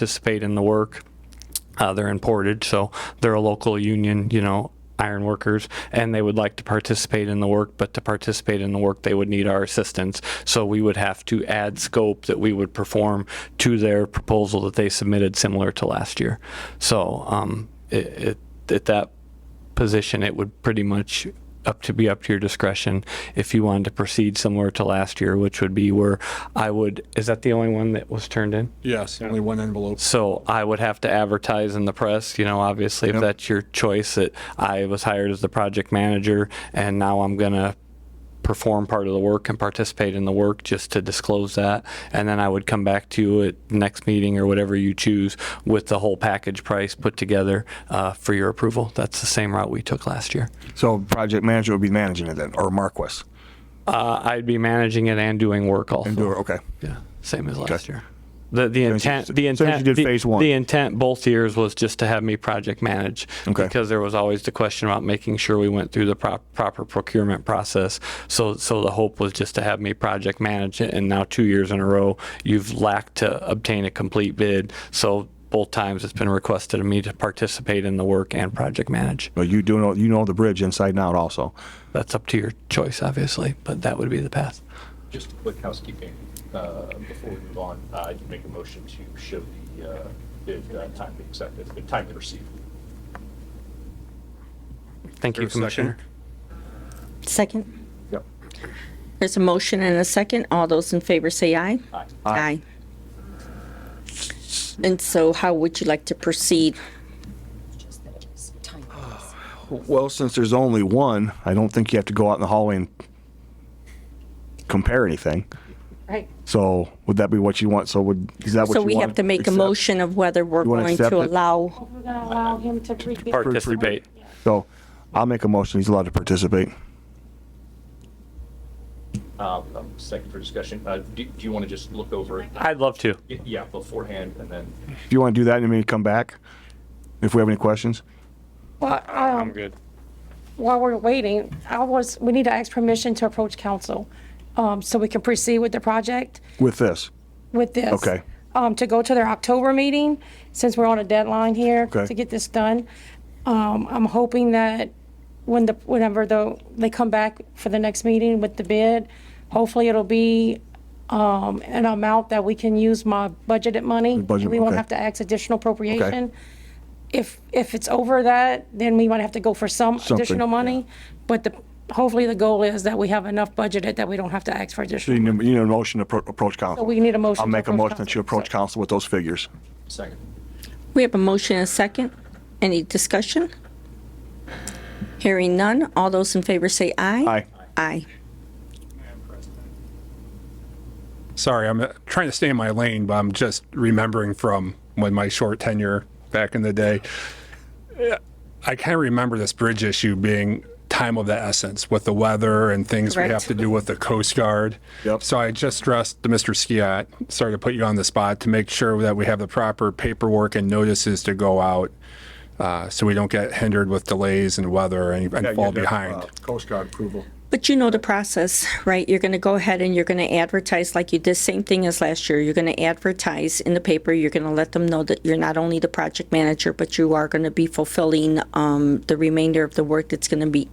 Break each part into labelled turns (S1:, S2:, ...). S1: participate in the work. Uh, they're in Portage, so they're a local union, you know, iron workers, and they would like to participate in the work, but to participate in the work, they would need our assistance. So we would have to add scope that we would perform to their proposal that they submitted similar to last year. So um, it, it, at that position, it would pretty much up to be up to your discretion if you wanted to proceed similar to last year, which would be where I would, is that the only one that was turned in?
S2: Yes, only one envelope.
S1: So I would have to advertise in the press, you know, obviously, if
S2: Yep.
S1: that's your choice, that I was hired as the project manager and now I'm going to perform part of the work and participate in the work just to disclose that. And then I would come back to you at next meeting or whatever you choose with the whole package price put together uh, for your approval. That's the same route we took last year.
S3: So project manager would be managing it then, or Marquis?
S1: Uh, I'd be managing it and doing work also.
S3: Endure, okay.
S1: Yeah, same as last year. The, the intent, the
S3: same as you
S1: intent.
S3: did
S1: the-
S3: phase one.
S1: The intent both years was just to have me project manage.
S3: Okay.
S1: Because there was always the question about making sure we went through the prop, proper procurement process. So, so the hope was just to have me project manage it. And now two years in a row, you've lacked to obtain a complete bid. So both times it's been requested of me to participate in the work and project manage.
S3: But you do know, you know the bridge inside and out also.
S1: That's up to your choice, obviously, but that would be the path.
S4: Just a quick housekeeping, uh, before we move on, uh, I can make a motion to show the, uh, bid, uh, time to accept it, the time to receive.
S1: Thank you,
S2: Is there a second?
S1: Commissioner.
S5: Second.
S4: Yep.
S5: There's a motion and a second. All those in favor say aye.
S4: Aye.
S5: Aye. And so how would you like to proceed?
S3: Well, since there's only one, I don't think you have to go out in the hallway and compare anything.
S5: Right.
S3: So would that be what you want? So would, is that what you want?
S5: So we have to make a
S3: accept?
S5: motion of whether we're
S3: You wanna
S5: going
S3: accept
S5: to
S3: it?
S5: allow,
S6: We're gonna allow him to pre- be-
S1: Participate.
S3: So I'll make a motion, he's allowed to participate.
S4: Uh, um, second for discussion, uh, do, do you want to just look over it?
S1: I'd love to.
S4: Y- Yeah, beforehand, and then,
S3: If you want to do that, and then we come back, if we have any questions.
S6: Well, um,
S1: good.
S6: While we're waiting, I was, we need to ask permission to approach council, um, so we can proceed with the project
S3: With this,
S6: with this.
S3: Okay.
S6: Um, to go to their October meeting, since we're on a deadline here
S3: Okay.
S6: to get this done. Um, I'm hoping that when the, whenever the, they come back for the next meeting with the bid, hopefully it'll be, um, an amount that we can use my budgeted money.
S3: budget,
S6: We won't
S3: okay.
S6: have to ask additional appropriation. If, if it's over that, then we might have to go for some
S3: Something,
S6: additional money. But the, hopefully the goal is that we have enough budgeted that we don't have to ask for
S3: you
S6: additional.
S3: need you need a motion to appro- approach council.
S6: We need a motion.
S3: I'll
S6: to
S3: make a motion that
S6: council.
S3: you approach council with those figures.
S4: second.
S5: we have a motion and a second. Any discussion? Hearing none. All those in favor say aye.
S3: Aye.
S5: Aye.
S7: Sorry, I'm uh, trying to stay in my lane, but I'm just remembering from when my short tenure back in the day. Uh, I kind of remember this bridge issue being time of the essence with the weather and things we have
S5: Correct.
S7: to do with the Coast Guard.
S3: Yep.
S7: So I just stressed to Mr. Skiat, sorry to put you on the spot, to make sure that we have the proper paperwork and notices to go out uh, so we don't get hindered with delays and weather and, and fall behind.
S2: Coast Guard approval.
S5: But you know the process, right? You're going to go ahead and you're going to advertise like you did, same thing as last year. You're going to advertise in the paper. You're going to let them know that you're not only the project manager, but you are going to be fulfilling um, the remainder of the work that's going to be,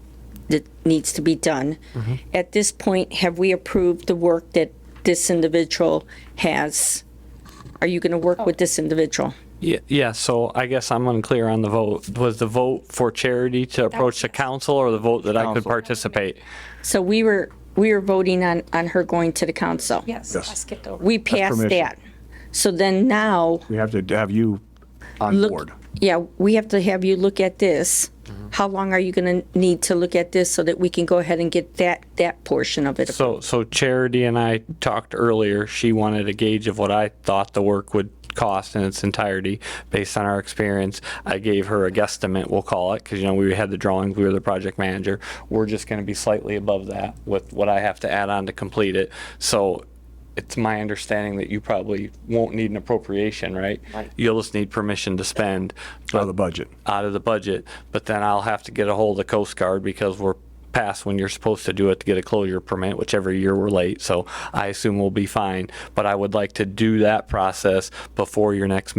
S5: that needs to be done. At this point, have we approved the work that this individual has? Are you going to work with this individual?
S1: Yeah, yeah, so I guess I'm unclear on the vote. Was the vote for charity to approach the council or the vote that I could
S3: Council.
S1: participate?
S5: So we were, we were voting on, on her going to the council.
S6: Yes, I skipped over.
S5: We passed
S3: permission.
S5: that. So then now.
S3: We have to have you on
S5: look-
S3: board. Mm-hmm.
S5: Yeah, we have to have you look at this. How long are you going to need to look at this so that we can go ahead and get that, that portion of it?
S1: So, so Charity and I talked earlier. She wanted a gauge of what I thought the work would cost in its entirety based on our experience. I gave her a guesstimate, we'll call it, because, you know, we had the drawings, we were the project manager. We're just going to be slightly above that with what I have to add on to complete it. So it's my understanding that you probably won't need an appropriation, right? You'll just need permission to spend.
S3: Out
S1: but-
S3: of the budget.
S1: out of the budget, but then I'll have to get a hold of the Coast Guard because we're past when you're supposed to do it to get a closure permit, whichever year we're late, so I assume we'll be fine. But I would like to do that process before your next meeting.